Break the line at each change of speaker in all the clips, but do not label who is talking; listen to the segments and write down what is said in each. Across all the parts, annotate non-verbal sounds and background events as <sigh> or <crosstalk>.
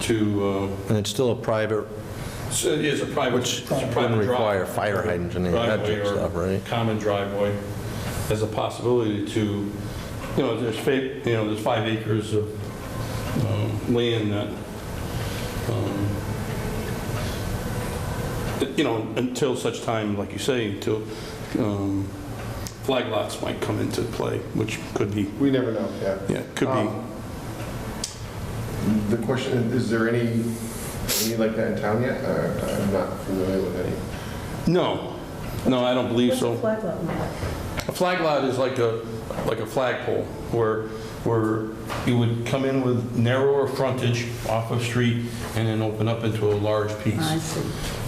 to,
And it's still a private,
uh, so it is a private,
Which
it's a private
wouldn't require
drive-
fire hydrant and any of that
driveway or
stuff, right?
Common driveway, as a possibility to, you know, there's, fa- you know, there's five acres of um, land that, um, that, you know, until such time, like you say, until um, flag lots might come into play, which could be,
We never know, yeah.
yeah, could be.
Um, The question, is there any, any like that in town yet? Uh, I'm not familiar with any.
No, no, I don't believe
What's a
so.
flag lot mean?
A flag lot is like a, like a flagpole, where, where you would come in with narrower frontage off of street and then open up into a large piece.
I see.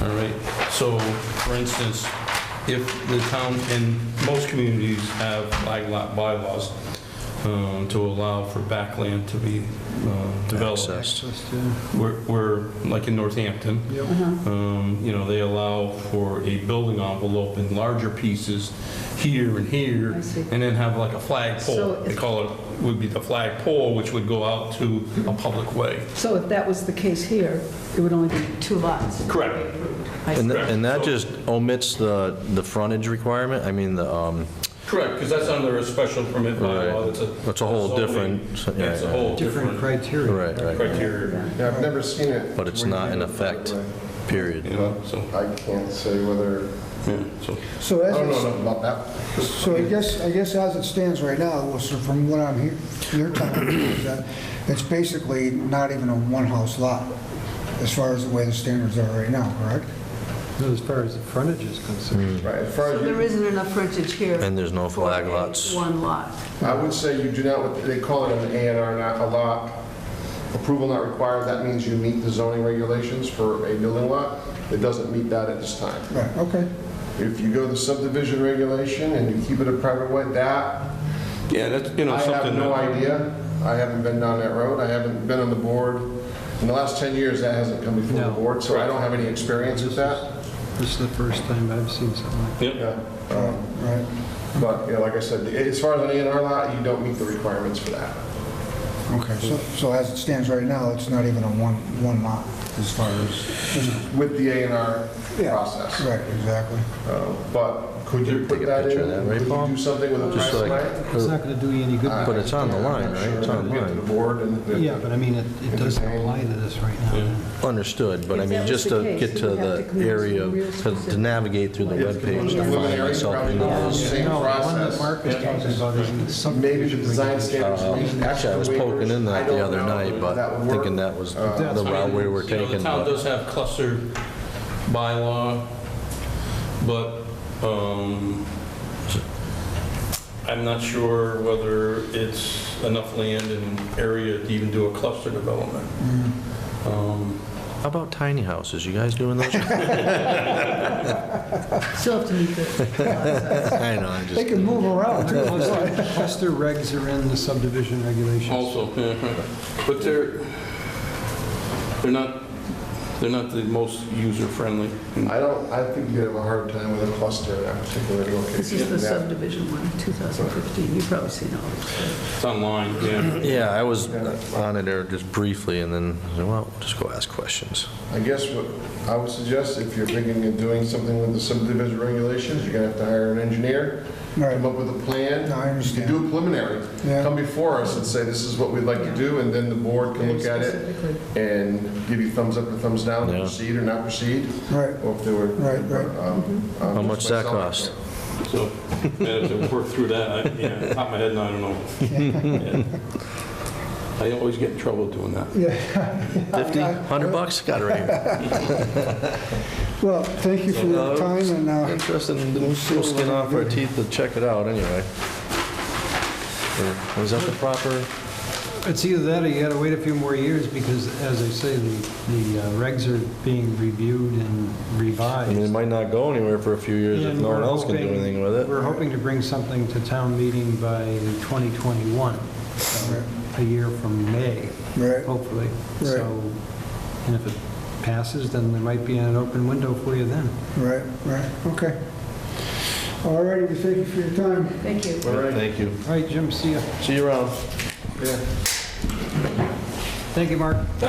All right, so for instance, if the town, and most communities have flag lot bylaws um, to allow for backland to be uh, developed.
Access.
We're, we're, like in Northampton,
Uh-huh.
um, you know, they allow for a building envelope in larger pieces here and here,
I see.
and then have like a flag
So
pole. They
if-
call it, would be the flag pole, which would go out to a public way.
So if that was the case here, it would only be two lots.
Correct.
I
and
see.
tha- and that just omits the, the frontage requirement? I mean, the, um,
Correct, because that's under a special permit bylaw.
Right.
That's a.
That's a whole
zoning-
different-
That's a
yeah,
whole
Different
different
criteria.
right, right,
criteria,
Yeah, I've never seen it.
but it's
where you
not in
can-
effect,
you
period.
know, so,
I can't say whether,
yeah, so.
So
I
as,
don't know
it's-
enough about that.
so I guess, I guess as it stands right now, well, so from what I'm hear you're telling me, is that it's basically not even a one-house lot, as far as the way the standards are right now, correct?
No, As far as the frontage is concerned.
Right, as far
So
as you-
there isn't enough frontage here.
And there's no
for
flag
a
lots.
One lot.
I would say you do not, they call it an A and R, not a lot. Approval not required, that means you meet the zoning regulations for a building lot. It doesn't meet that at this time.
Right, okay.
If you go the subdivision regulation and you keep it a private way, that,
Yeah, that's, you know,
I have
something.
no
that-
idea. I haven't been down that road, I haven't been on the board. In the last 10 years, that hasn't come before the
No.
board, so I don't have any experience with that.
Hmm.
This is the first time I've seen something like
Yep,
Yeah, um,
Right.
But, you know, like I said, as far as an A and R lot, you don't meet the requirements for that.
Okay, so, so as it stands right now, it's not even a one, one lot as far as,
with the A and R
Yeah.
process.
right, exactly.
Uh, But could you
Take
put
a
that in?
picture of that, right,
Could you
Paul?
Do something with a
Just
private
like-
line?
that. It's not going to do you any good.
I-
But it's on the line, right? It's
I'm
on
not
the
sure. Get to
line.
the board and...
Yeah, but I mean, it it doesn't apply to this right now.
Understood, but I
If
mean,
that was
just
the
to
case,
get
you
to
would have
the
to come up with
area,
some real
to- to
specific-
navigate through the
Yeah,
webpage
the
to find
preliminary
myself
probably
in all
goes
those. uh,
Same
No, the one that
process.
Mark was talking about is in some.
Maybe the design standards...
Um, Actually, I was poking in that the other night, but thinking that was
Uh,
the
I mean,
route we were
you know,
taking.
The town
but-
does have cluster bylaw, but um, I'm not sure whether it's enough land and area to even do a cluster development. Um,
How about tiny houses? You guys doing those? <laughs>
Still have to meet the lot size.
I know, I
They
just,
can move around, too.
Cluster
<laughs>
cluster regs are in the subdivision regulations.
Also, yeah, but they're, they're not, they're not the most user-friendly.
I don't, I think you'd have a hard time with a cluster in that particular location.
This is the
That-
subdivision one, 2015. You've probably seen all this.
It's online, yeah.
yeah, I was on it there just briefly and then, I said, well, just go ask questions.
I guess what I would suggest, if you're thinking of doing something with the subdivision regulations, you're gonna have to hire an engineer,
Right.
come up with a plan.
No, I understand.
You do a preliminary,
Yeah.
come before us and say, this is what we'd like to do, and then the board can look at it
Specifically.
and give you thumbs up or thumbs down,
Yeah.
proceed or not proceed,
Right.
or if they were. um,
Right, right.
How
much that cost?
So, yeah, to work through that, I, yeah, top of my head, no, I don't know. Yeah. I always get in trouble doing that.
Fifty, hundred bucks? Uh, Got it right here.
Well, thank you for your time, and uh,
Interesting, we'll skin off our teeth to check it out anyway. Or Was that the proper?
It's either that or you gotta wait a few more years because, as I say, the, the uh, regs are being reviewed and
I mean, it
revised.
might not go anywhere for a few years if
And
no one
we're
else can do
hoping-
anything with it.
We're hoping to bring something to town meeting by 2021, so a year from May,
right,
hopefully.
Right.
So, and if it passes, then there might be an open window for you then.
right, right, okay. All righty, well, thank you for your time.
Thank you.
All right,
Thank you.
All right, Jim, see ya.
See you around.
yeah.
Thank you, Mark.